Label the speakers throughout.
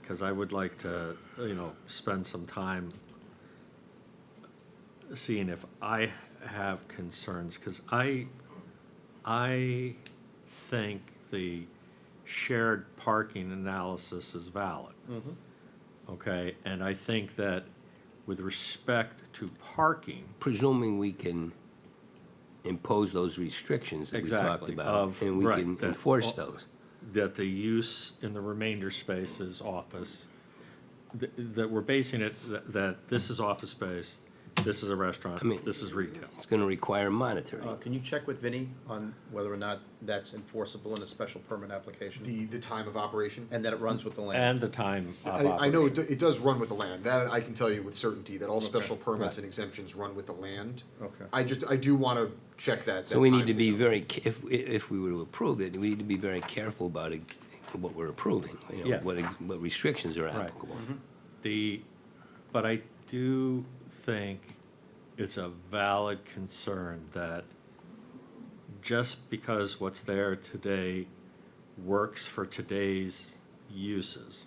Speaker 1: because I would like to, you know, spend some time seeing if I have concerns, because I, I think the shared parking analysis is valid. Okay, and I think that with respect to parking,
Speaker 2: presuming we can impose those restrictions that we talked
Speaker 1: Exactly,
Speaker 2: about,
Speaker 1: of-
Speaker 2: and we
Speaker 1: right,
Speaker 2: can
Speaker 1: that-
Speaker 2: enforce
Speaker 1: well-
Speaker 2: those.
Speaker 1: that the use in the remainder space is office, th- that we're basing it, th- that this is office space, this is a
Speaker 2: I mean-
Speaker 1: restaurant, this is retail.
Speaker 2: It's gonna require monitoring.
Speaker 3: Uh, Can you check with Vinnie on whether or not that's enforceable in a special permit application?
Speaker 4: the, the time of operation.
Speaker 3: And that it runs with the land?
Speaker 1: And the time of
Speaker 4: I, I know it,
Speaker 1: operation.
Speaker 4: do- it does run with the land, that I can tell you with certainty, that all special
Speaker 3: Right.
Speaker 4: permits and exemptions run with the land.
Speaker 3: Okay.
Speaker 4: I just, I do wanna check that.
Speaker 2: So
Speaker 4: that
Speaker 2: we need to
Speaker 4: timing,
Speaker 2: be
Speaker 4: though.
Speaker 2: very, ca- if, if we were to approve it, we need to be very careful about it, what we're approving, you know,
Speaker 1: Yeah.
Speaker 2: what, ex- what restrictions are applicable.
Speaker 3: Mm-hmm.
Speaker 1: The, but I do think it's a valid concern that just because what's there today works for today's uses,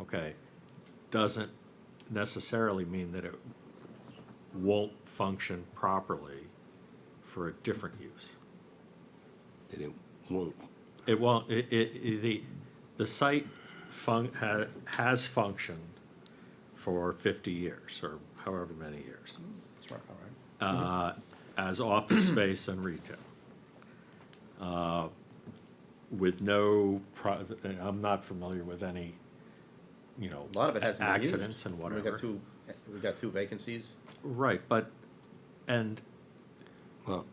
Speaker 1: okay, doesn't necessarily mean that it won't function properly for a different use.
Speaker 2: That it won't,
Speaker 1: It won't, it, it, it- the, the site fun, ha, has functioned for fifty years, or however many years,
Speaker 3: That's right, all right.
Speaker 1: uh, as office space and retail. Uh, With no private, I'm not familiar with any, you know.
Speaker 3: A lot of it hasn't been used.
Speaker 1: Accidents and
Speaker 3: We
Speaker 1: whatever.
Speaker 3: got two, we got two vacancies.
Speaker 1: Right, but, and,
Speaker 2: well,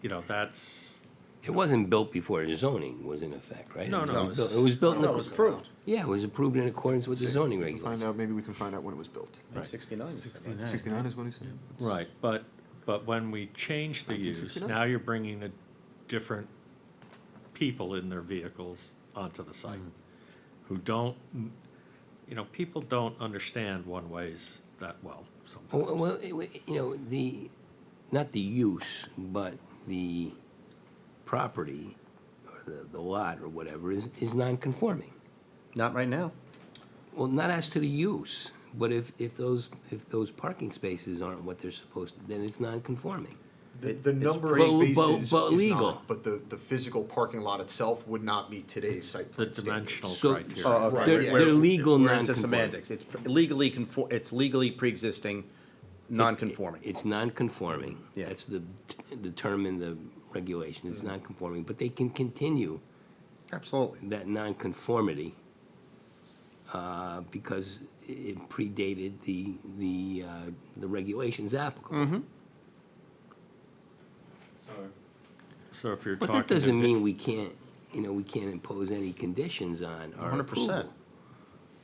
Speaker 1: you know, that's,
Speaker 2: it wasn't built before the zoning was in effect, right?
Speaker 1: No, no,
Speaker 2: It was
Speaker 1: it was-
Speaker 2: built- It was built in,
Speaker 3: No, it was
Speaker 2: the-
Speaker 3: approved.
Speaker 2: yeah, it was approved in accordance with the zoning
Speaker 4: We can Find
Speaker 2: regulations.
Speaker 4: out, maybe we can find out when it was built.
Speaker 3: I think sixty-nine. is the right-
Speaker 4: Sixty-nine is what he said?
Speaker 1: Right, but, but when we change the use,
Speaker 4: 1969.
Speaker 1: now you're bringing a different people in their vehicles onto the site
Speaker 2: Mm.
Speaker 1: who don't, you know, people don't understand one-ways that well
Speaker 2: Well,
Speaker 1: sometimes.
Speaker 2: well, it- it- you know, the, not the use, but the property, or the, the lot, or whatever, is, is non-conforming.
Speaker 3: Not right now.
Speaker 2: Well, not as to the use, but if, if those, if those parking spaces aren't what they're supposed to, then it's non-conforming.
Speaker 4: The,
Speaker 3: It-
Speaker 4: the
Speaker 3: it's
Speaker 4: number of
Speaker 2: pretty- But- but-
Speaker 4: spaces is
Speaker 2: but legal.
Speaker 4: not, but the, the physical parking lot itself would not meet today's site
Speaker 1: The
Speaker 4: plan standards.
Speaker 1: dimensional
Speaker 2: So-
Speaker 1: criteria.
Speaker 4: okay.
Speaker 2: They're,
Speaker 4: yeah.
Speaker 2: they're legal
Speaker 3: Oh, We're into
Speaker 2: non-conforming.
Speaker 3: semantics. It's legally conform, it's legally pre-existing, non-conforming.
Speaker 2: It's non-conforming.
Speaker 3: Yeah. Mm-hmm.
Speaker 2: That's the, the term in the regulation, it's non-conforming, but they can continue
Speaker 3: Absolutely.
Speaker 2: that nonconformity uh, because it predated the, the, uh, the regulations applicable.
Speaker 1: So if you're
Speaker 2: oh. But
Speaker 1: talking.
Speaker 2: that doesn't
Speaker 1: to-
Speaker 2: mean we can't, you know, we can't impose any conditions on our
Speaker 3: hundred percent.
Speaker 2: approval.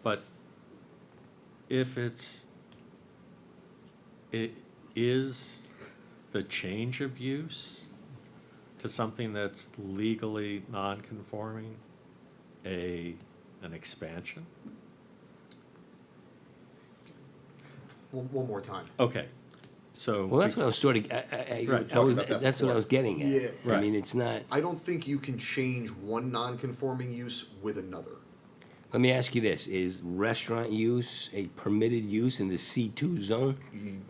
Speaker 1: But if it's, it is the change of use to something that's legally non-conforming a, an expansion?
Speaker 4: One, one more time.
Speaker 1: Okay, so.
Speaker 2: Well, that's what I was sort of, I, I- I,
Speaker 1: Right,
Speaker 2: I was,
Speaker 3: talked about that
Speaker 2: that's what I was getting
Speaker 4: Yeah.
Speaker 2: at. I
Speaker 1: Right.
Speaker 2: mean, it's not,
Speaker 4: I don't think you can change one non-conforming use with another.
Speaker 2: let me ask you this, is restaurant use a permitted use in the C2 zone? All
Speaker 4: I,
Speaker 2: right,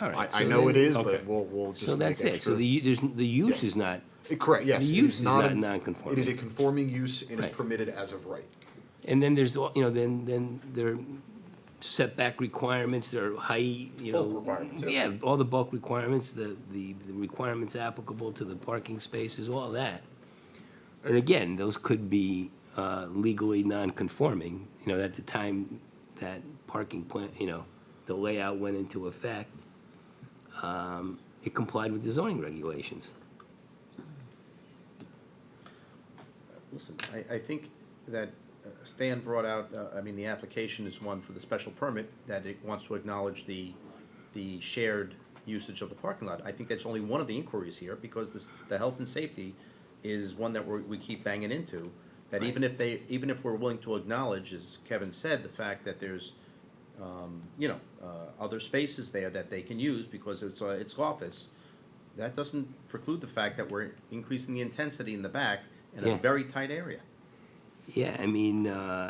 Speaker 4: Mm-hmm. I
Speaker 2: so
Speaker 4: know it
Speaker 2: then-
Speaker 4: is,
Speaker 1: okay.
Speaker 4: but we'll, we'll just
Speaker 2: So
Speaker 4: make
Speaker 2: that's it, so
Speaker 4: extra-
Speaker 2: the, u- there's, n- the use
Speaker 4: Yes.
Speaker 2: is not,
Speaker 4: Eh, Correct, yes.
Speaker 2: The
Speaker 4: it
Speaker 2: use
Speaker 4: is
Speaker 2: is
Speaker 4: not
Speaker 2: not
Speaker 4: a-
Speaker 2: non-conforming.
Speaker 4: It is a conforming use and is
Speaker 2: Right.
Speaker 4: permitted as of right.
Speaker 2: And then there's, all- you know, then, then there are setback requirements, there are height, you know.
Speaker 4: Bulk requirements, yeah.
Speaker 2: Yeah, all the bulk requirements, the, the the requirements applicable to the parking spaces, all that. And again, those could be uh, legally non-conforming, you know, at the time that parking plan, you know, the layout went into effect, um, it complied with the zoning regulations.
Speaker 3: Listen, I, I think that uh, Stan brought out, uh, I mean, the application is one for the special permit, that it wants to acknowledge the, the shared usage of the parking lot. I think that's only one of the inquiries here, because this, the health and safety is one that we're, we keep banging into. That even if they, even if we're willing to acknowledge, as Kevin said, the fact that there's, um, you know, uh, other spaces there that they can use because it's, uh, it's office, that doesn't preclude the fact that we're increasing the intensity in the back in a
Speaker 2: Yeah.
Speaker 3: very tight area.
Speaker 2: Yeah, I mean, uh,